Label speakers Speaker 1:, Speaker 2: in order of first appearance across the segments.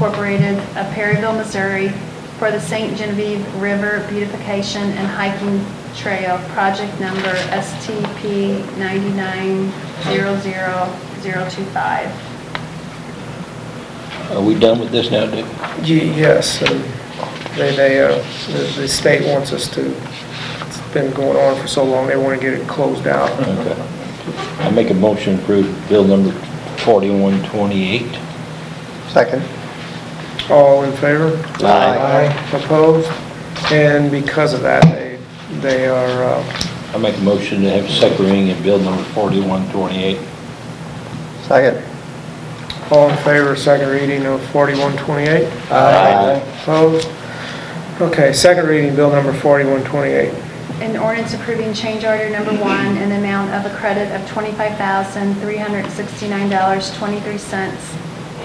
Speaker 1: Incorporated of Perryville, Missouri for the St. Genevieve River Beautification and Hiking Trail, project number STP 9900025.
Speaker 2: Are we done with this now, Dick?
Speaker 3: Ye- Yes, and they, they, uh, the the state wants us to, it's been going on for so long, they want to get it closed out.
Speaker 2: Okay. I make a motion to approve bill number 4128.
Speaker 4: Second.
Speaker 3: All in favor?
Speaker 2: Aye.
Speaker 3: Opposed? And because of that, they, they are, uh,
Speaker 2: I make a motion to have second reading in bill number 4128.
Speaker 4: Second.
Speaker 3: all in favor of second reading of 4128?
Speaker 4: Aye.
Speaker 3: Opposed? Okay, second reading, bill number 4128.
Speaker 1: An ordinance approving change order number one in the amount of a credit of $25,369.23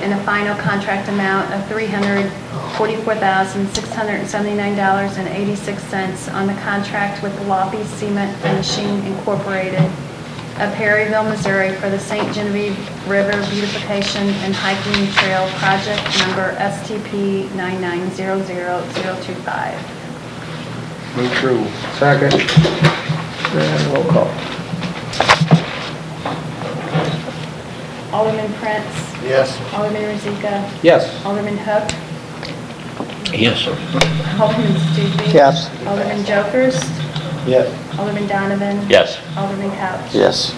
Speaker 1: and a final contract amount of $344,679.86 on the contract with Loppy Cement Finishing Incorporated of Perryville, Missouri for the St. Genevieve River Beautification and Hiking Trail Project Number STP 9900025.
Speaker 4: Move through.
Speaker 3: Second. And roll call.
Speaker 1: Alderman Prince.
Speaker 4: Yes.
Speaker 1: Alderman Rozika.
Speaker 4: Yes.
Speaker 1: Alderman Hook.
Speaker 2: Yes, sir.
Speaker 1: Alderman Stupi.
Speaker 4: Yes.
Speaker 1: Alderman Jokers.
Speaker 4: Yes.
Speaker 1: Alderman Donovan.
Speaker 2: Yes.
Speaker 1: Alderman Couch.
Speaker 4: Yes.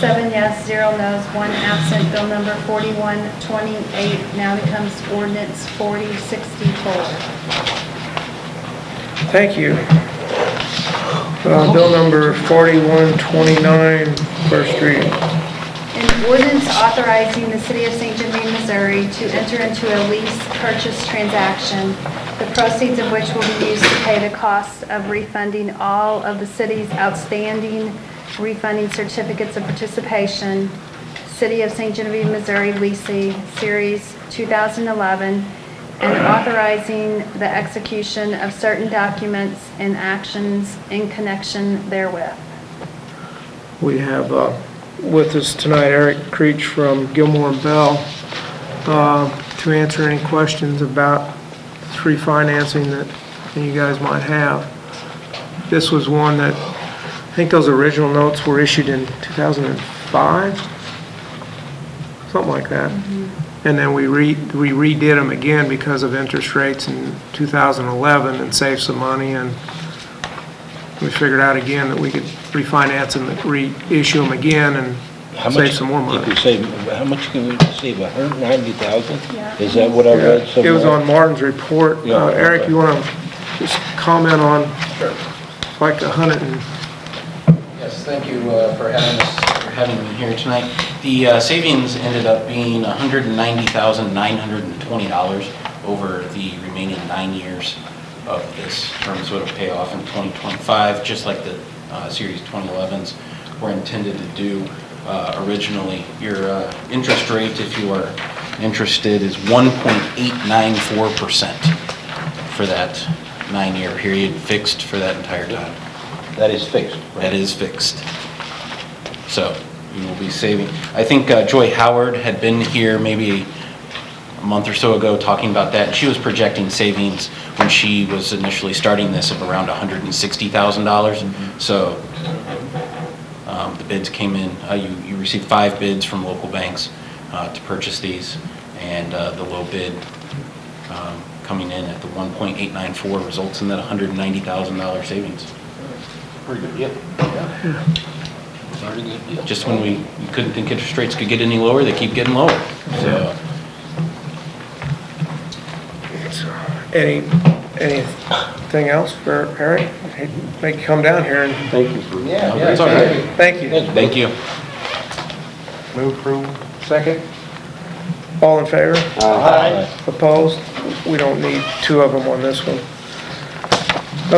Speaker 1: Seven yes, zero no's, one absent. Bill number 4128 now becomes ordinance 4064.
Speaker 3: Thank you. Uh, Bill number 4129, first reading.
Speaker 1: An ordinance authorizing the City of St. Genevieve, Missouri to enter into a lease purchase transaction, the proceeds of which will be used to pay the cost of refunding all of the city's outstanding refunding certificates of participation, City of St. Genevieve, Missouri leasing Series 2011, and authorizing the execution of certain documents and actions in connection therewith.
Speaker 3: We have uh, with us tonight Eric Creech from Gilmore and Bell uh, to answer any questions about this refinancing that you guys might have. This was one that, I think those original notes were issued in 2005, something like that. And then we re we redid them again because of interest rates in 2011 and saved some money and we figured out again that we could refinance them, reissue them again
Speaker 2: How
Speaker 3: and
Speaker 2: much-
Speaker 3: save some more
Speaker 2: If you
Speaker 3: money.
Speaker 2: save, how much can we save, 190,000?
Speaker 1: Yeah.
Speaker 2: Is that what I read
Speaker 3: Yeah,
Speaker 2: somewhere?
Speaker 3: It was on Martin's report.
Speaker 2: Yeah,
Speaker 3: Uh, Eric,
Speaker 2: okay.
Speaker 3: you want to just comment on like a hundred and,
Speaker 5: Yes, thank you uh, for having us, for having me here tonight. The uh, savings ended up being $190,920 over the remaining nine years of this term, so it'll pay off in 2025, just like the uh, Series 2011s were intended to do uh, originally. Your uh, interest rate, if you are interested, is 1.894% for that nine-year period, fixed for that entire time.
Speaker 2: That is fixed. right?
Speaker 5: That is fixed. So we will be saving. I think uh, Joy Howard had been here maybe a month or so ago talking about that. She was projecting savings when she was initially starting this of around $160,000. So um, the bids came in, uh, you you received five bids from local banks uh, to purchase these, and uh, the low bid um, coming in at the 1.894 results in that $190,000 savings.
Speaker 2: Pretty good, yep. Yeah. Pretty good deal.
Speaker 5: just when we we couldn't think interest rates could get any lower, they keep getting lower. So,
Speaker 3: any, anything else for Eric? He'd Make you come down here and,
Speaker 2: Thank you for...
Speaker 4: Yeah,
Speaker 5: yeah, It's all right.
Speaker 3: thank you.
Speaker 5: thank you.
Speaker 4: Move through. Second.
Speaker 3: All in favor?
Speaker 4: Aye.
Speaker 3: Opposed? We don't need two of them on this one.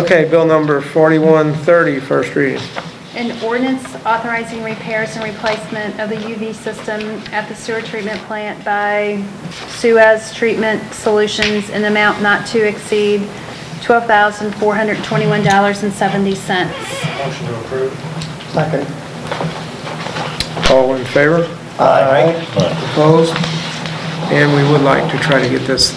Speaker 3: Okay, bill number 4130, first reading.
Speaker 1: An ordinance authorizing repairs and replacement of the UV system at the sewer treatment plant by Suez Treatment Solutions in amount not to exceed $12,421.70.
Speaker 4: Second.
Speaker 3: All in favor?
Speaker 4: Aye.
Speaker 3: Opposed? And we would like to try to get this